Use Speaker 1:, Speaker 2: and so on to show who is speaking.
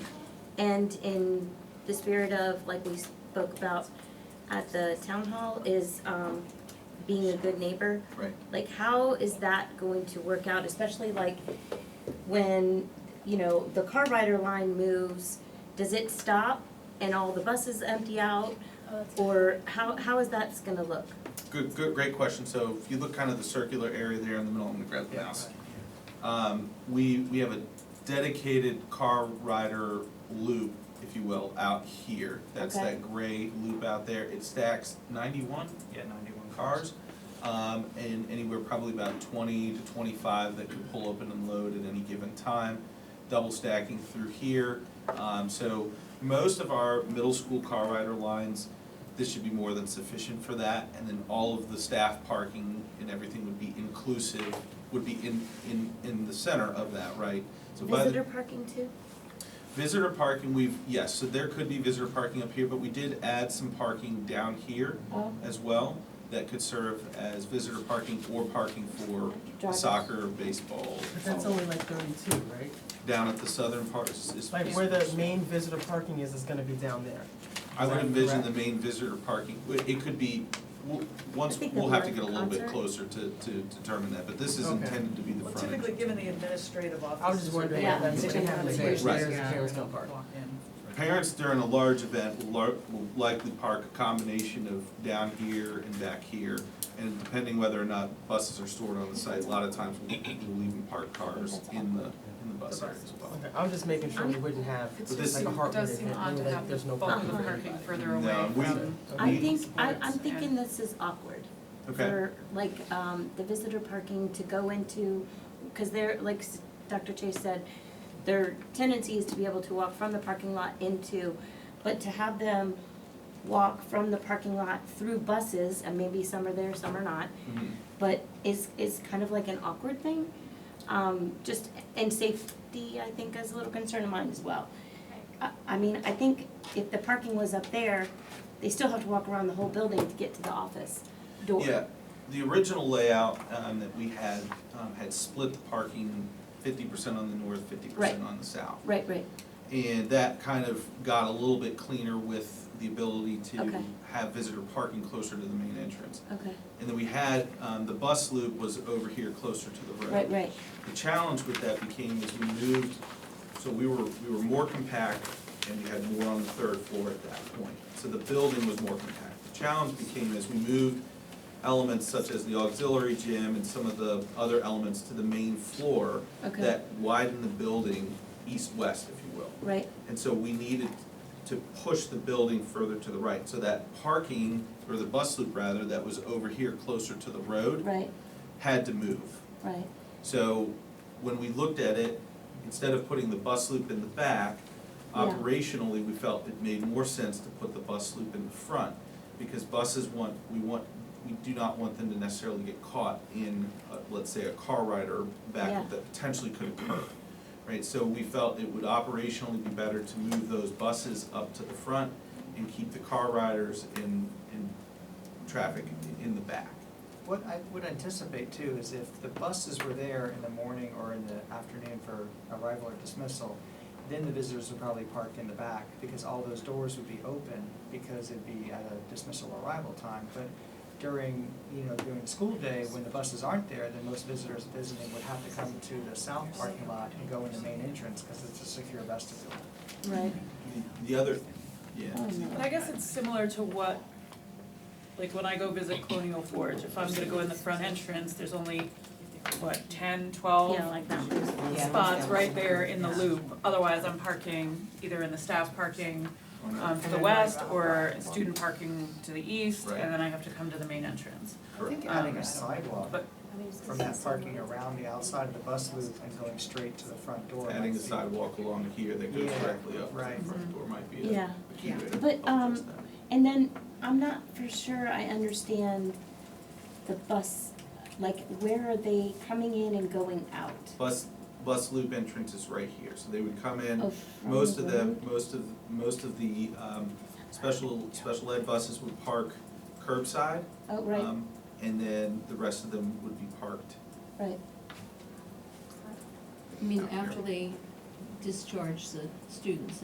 Speaker 1: And in the spirit of, like we spoke about at the town hall, is um, being a good neighbor.
Speaker 2: Right.
Speaker 1: Like, how is that going to work out, especially like when, you know, the car rider line moves, does it stop and all the buses empty out? Or how, how is that's gonna look?
Speaker 2: Good, good, great question. So if you look kind of the circular area there in the middle, I'm gonna grab the mouse. Um, we, we have a dedicated car rider loop, if you will, out here. That's
Speaker 1: Okay.
Speaker 2: that gray loop out there. It stacks ninety-one
Speaker 3: Yeah, ninety-one
Speaker 2: cars. Um, and anywhere probably about twenty to twenty-five that can pull open and load at any given time. Double stacking through here. Um, so most of our middle school car rider lines, this should be more than sufficient for that. And then all of the staff parking and everything would be inclusive, would be in, in, in the center of that, right? So by the-
Speaker 1: Visitor parking too?
Speaker 2: Visitor parking, we've, yes, so there could be visitor parking up here, but we did add some parking down here
Speaker 1: Oh.
Speaker 2: as well that could serve as visitor parking or parking for
Speaker 1: Drivers.
Speaker 2: soccer, baseball.
Speaker 4: But that's only like thirty-two, right?
Speaker 2: Down at the southern part is, is.
Speaker 4: Like where the main visitor parking is, is gonna be down there.
Speaker 2: I would
Speaker 4: Right,
Speaker 2: envision
Speaker 4: correct.
Speaker 2: the main visitor parking, it it could be, we'll-
Speaker 1: I
Speaker 2: once,
Speaker 1: think
Speaker 2: we'll
Speaker 1: the
Speaker 2: have to get a
Speaker 1: live
Speaker 2: little bit
Speaker 1: concert.
Speaker 2: closer to, to determine that, but this is
Speaker 4: Okay.
Speaker 2: intended to be the
Speaker 5: Well,
Speaker 2: front.
Speaker 5: typically, given the administrative offices.
Speaker 4: I was just wondering
Speaker 1: Yeah.
Speaker 4: if that's gonna happen,
Speaker 5: Typically,
Speaker 4: if
Speaker 2: Right.
Speaker 4: there's a
Speaker 5: yeah,
Speaker 4: parents don't park.
Speaker 5: walk in.
Speaker 2: Parents during a large event will lar- will likely park a combination of down here and back here. And depending whether or not buses are stored on the site, a lot of times we'll we'll even park cars in the, in the bus area as well.
Speaker 4: Okay, I'm just making sure we wouldn't have
Speaker 6: It
Speaker 2: But
Speaker 6: just
Speaker 2: this-
Speaker 4: like a
Speaker 6: seem-
Speaker 4: heart rate,
Speaker 6: does seem odd
Speaker 4: event,
Speaker 6: to
Speaker 4: like
Speaker 6: have the
Speaker 4: there's no
Speaker 6: bulk
Speaker 4: parking
Speaker 6: of
Speaker 4: for
Speaker 6: the parking
Speaker 4: everybody.
Speaker 6: further
Speaker 2: No,
Speaker 6: away
Speaker 2: we-
Speaker 6: from.
Speaker 1: I
Speaker 2: We-
Speaker 1: think, I, I'm
Speaker 6: Sports
Speaker 1: thinking
Speaker 6: and-
Speaker 1: this is awkward.
Speaker 2: Okay,
Speaker 1: for like um the visitor parking to go into, because they're, like s- Dr. Chase said, their tendency is to be able to walk from the parking lot into, but to have them walk from the parking lot through buses, and maybe some are there, some are not,
Speaker 2: Mhm.
Speaker 1: but is is kind of like an awkward thing. Um just, and safety, I think, is a little concern of mine as well. I I mean, I think if the parking was up there, they still have to walk around the whole building to get to the office door.
Speaker 2: yeah, the original layout um, that we had, um, had split the parking fifty percent on the north, fifty percent
Speaker 1: Right.
Speaker 2: on the south.
Speaker 1: Right, right.
Speaker 2: And that kind of got a little bit cleaner with the ability to
Speaker 1: Okay.
Speaker 2: have visitor parking closer to the main entrance.
Speaker 1: Okay.
Speaker 2: And then we had, um, the bus loop was over here closer to the road.
Speaker 1: Right, right.
Speaker 2: The challenge with that became is we moved, so we were, we were more compact and we had more on the third floor at that point. So the building was more compact. The challenge became as we moved elements such as the auxiliary gym and some of the other elements to the main floor
Speaker 1: Okay.
Speaker 2: that widened the building east-west, if you will.
Speaker 1: Right.
Speaker 2: And so we needed to push the building further to the right. So that parking, or the bus loop rather, that was over here closer to the road,
Speaker 1: Right.
Speaker 2: had to move.
Speaker 1: Right.
Speaker 2: So when we looked at it, instead of putting the bus loop in the back,
Speaker 1: Yeah.
Speaker 2: operationally, we felt it made more sense to put the bus loop in the front. Because buses want, we want, we do not want them to necessarily get caught in, uh, let's say, a car rider
Speaker 1: Yeah.
Speaker 2: back that potentially could occur. Right, so we felt it would operationally be better to move those buses up to the front and keep the car riders in, in traffic in the back.
Speaker 3: What I would anticipate too is if the buses were there in the morning or in the afternoon for arrival or dismissal, then the visitors would probably park in the back because all those doors would be open because it'd be at a dismissal arrival time. But during, you know, during the school day, when the buses aren't there, then most visitors visiting would have to come to the south parking lot and go in the main entrance because it's a secure vestibule.
Speaker 1: Right.
Speaker 2: The- The other, yeah.
Speaker 1: Oh, no.
Speaker 6: But I guess it's similar to what, like when I go visit Colonial Forge, if I'm gonna go in the front entrance, there's only, what, ten,
Speaker 3: Oh.
Speaker 6: twelve?
Speaker 1: Yeah, like that one.
Speaker 6: spots right there in the loop, otherwise I'm parking either in the staff parking
Speaker 2: Or not.
Speaker 6: um to the west or student parking to the east,
Speaker 2: Right.
Speaker 6: and then I have to come to the main entrance.
Speaker 3: I think
Speaker 6: Correct.
Speaker 3: adding
Speaker 6: Um,
Speaker 3: a sidewalk
Speaker 6: But
Speaker 3: from that parking around the outside of the bus loop and going straight to the front door.
Speaker 2: Adding a
Speaker 3: might be-
Speaker 2: sidewalk along here that goes
Speaker 3: Yeah,
Speaker 2: directly up to
Speaker 3: right.
Speaker 2: the front door might be a
Speaker 1: Mm-hmm. Yeah.
Speaker 2: a key way to
Speaker 1: But, um,
Speaker 2: approach that.
Speaker 1: And then I'm not for sure I understand the bus, like where are they coming in and going out?
Speaker 2: Bus, bus loop entrance is right here, so they would come in,
Speaker 1: Oh, from
Speaker 2: most of
Speaker 1: the
Speaker 2: them,
Speaker 1: road?
Speaker 2: most of, most of the, um, special, special ed buses would park curbside.
Speaker 1: Oh, right,
Speaker 2: um, And then the rest of them would be parked.
Speaker 1: right.
Speaker 7: I mean, after they discharge the students,